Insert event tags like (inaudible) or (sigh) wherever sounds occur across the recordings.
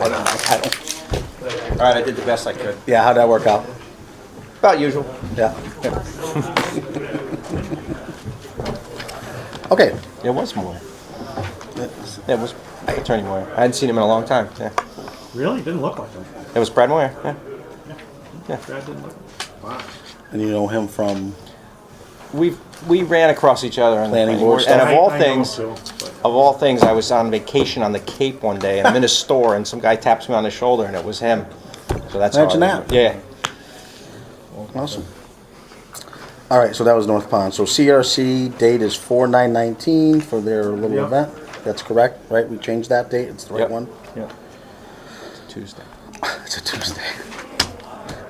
I don't, I don't, All right, I did the best I could. yeah, how'd that work out? About usual. Yeah. Okay, It was Moyer. It was Attorney Moyer. I hadn't seen him in a long time. Yeah. Really? Didn't look like him. It was Brad Moyer. Yeah. Brad didn't look. Wow. and you know him from, We we ran across each other on Planning the board And of stuff. all I- I know things, him of too, but- all things, I was on vacation on the Cape one day, and I'm in a store, and some guy taps me on the shoulder, and it was him. So that's how I Imagine remember- that. Yeah. awesome. All right, so that was North Pond. So CRC date is four nine nineteen for their little Yeah. event. That's correct, right? We changed that date. It's the right Yep. one. Yeah. Tuesday. It's a Tuesday.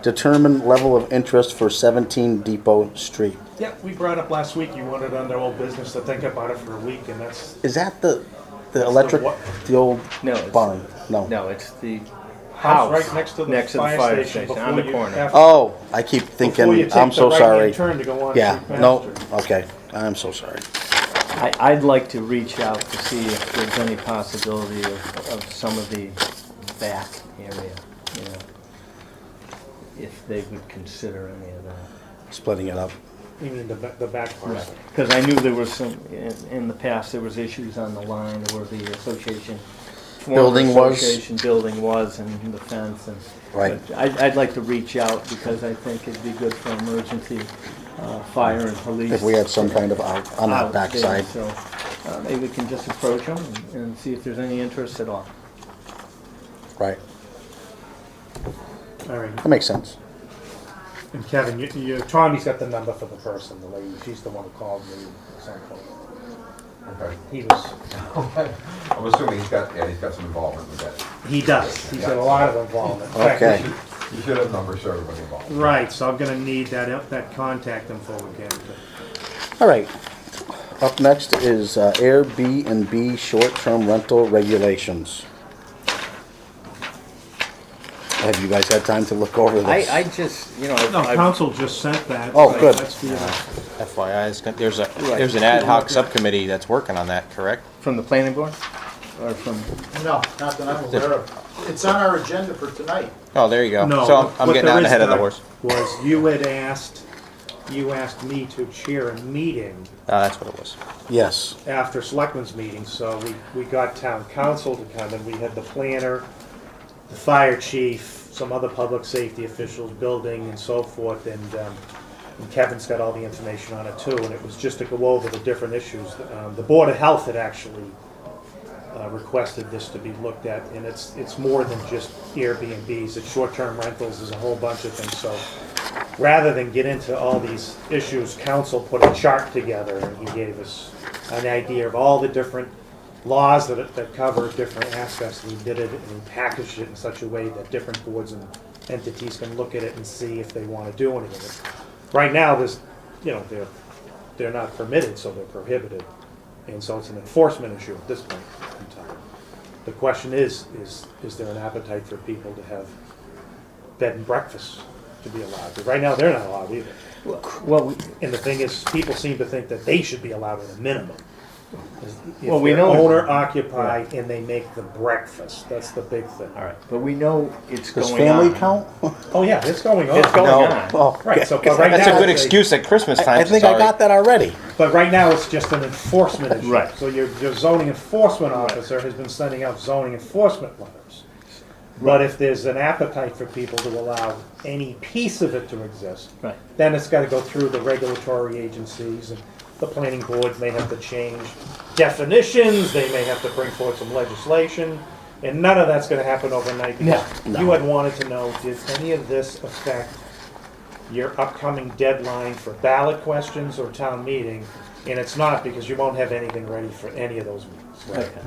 Determine level of interest for seventeen Depot Street. Yeah, we brought up last week. You wanted under old business to think about it for a week, and that's Is that the, the electric, what? the old No, it's- barn? No. No, it's the house house. right next to the fire, station, on before the you- corner. after- Oh, I keep before you thinking, take I'm the so right-hand sorry. Turn to go on. Yeah, through no, Baxter. okay, I'm so sorry. I, I'd like to reach out to see if there's any possibility of, of some of the back area, you know. If they would consider any of that. Splitting it up. Even the, ba- the back parcel. Because I knew there was some, in, in the past, there was issues on the line where the association. former Building was? Association building was and the fence and. Right. but I'd, I'd like to reach out because I think it'd be good for emergency, uh, fire and police. If we had some kind of out on that out there, backside. So uh, maybe we can just approach them and see if there's any interest at all. Right. All right. That makes sense. And Kevin, you, you, Tommy's got the number for the person, the lady. She's the one who called me at some point. He was. I'm assuming he's got, yeah, he's got some involvement with that. He does. He's got a lot of involvement. In fact, Okay. You should have numbers for everybody involved. Right, so I'm gonna need that, that contact info again. All right. Up next is uh, Airbnb short-term rental regulations. Have you guys had time to look over I, this? I just, you know, No, I, council just sent that. Oh, so good. that's the, uh, FYI, it's gon- there's a there's an ad hoc subcommittee that's working on that. Correct. from the planning board or from, No, not that I'm aware of. It's on our agenda for tonight. Oh, there you go. No. so I'm, I'm what getting there out is, ahead of the Doug, horse. Was you had asked, you asked me to chair a meeting Uh, that's what it was. Yes. after selectmen's meeting, so we, we got town council to come and we had the planner, the fire chief, some other public safety officials, building and so forth, and, um, and Kevin's got all the information on it too, and it was just to go over the different issues. Um, the Board of Health had actually, uh, requested this to be looked at, and it's, it's more than just Airbnbs, it's short-term rentals, there's a whole bunch of things, so rather than get into all these issues, council put a chart together, and he gave us an idea of all the different laws that, that cover different aspects, and he did it, and he packaged it in such a way that different boards and entities can look at it and see if they wanna do anything. Right now, there's, you know, they're, they're not permitted, so they're prohibited, and so it's an enforcement issue at this point in time. The question is, is, is there an appetite for people to have bed and breakfasts to be allowed? But right now, they're not allowed either. well, we- And the thing is, people seem to think that they should be allowed at a minimum. Well, we know- Owner occupied and they make the breakfast, that's the big thing. all right, but we know it's Does going on. family (laughs) count? Oh, yeah, it's going on. It's going No. on. Oh, Right, so, but right now. That's a good they- excuse at Christmas time. I I think I got that already. But right now, it's just an enforcement issue. Right. So your, your zoning enforcement officer has been sending out zoning enforcement letters. But if there's an appetite for people to allow any piece of it to exist, Right. then it's gotta go through the regulatory agencies and the planning boards may have to change definitions, they may have to bring forward some legislation, and none of that's gonna happen overnight. No, because You had wanted to know, did any of this affect your upcoming deadline for ballot questions or town meeting? And it's not because you won't have anything ready for any of those meetings. Okay.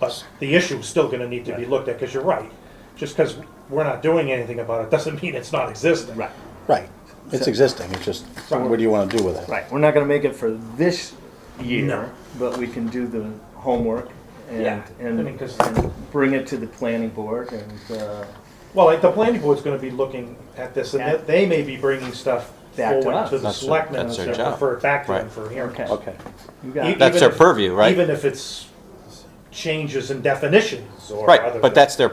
But the issue is still gonna need to be looked at, because you're right. Just because we're not doing anything about it doesn't (laughs) mean it's not existing. Right, Right. It's existing. It's just, what do you want to do with it? right. We're not gonna make it for this No. year, but we can do the homework and, Yeah. I and mean, 'cause- and bring it to the planning board and, uh, Well, like, the planning board's gonna be looking at this, and Yeah. they they may be bringing stuff Back to forward us. to the That's their- selectmen and that's their stuff, job. refer it back to them Right. for hearing. Okay. Okay. you E- got it. That's even their if- purview, right? Even if it's changes in definitions or other. Right, but that's their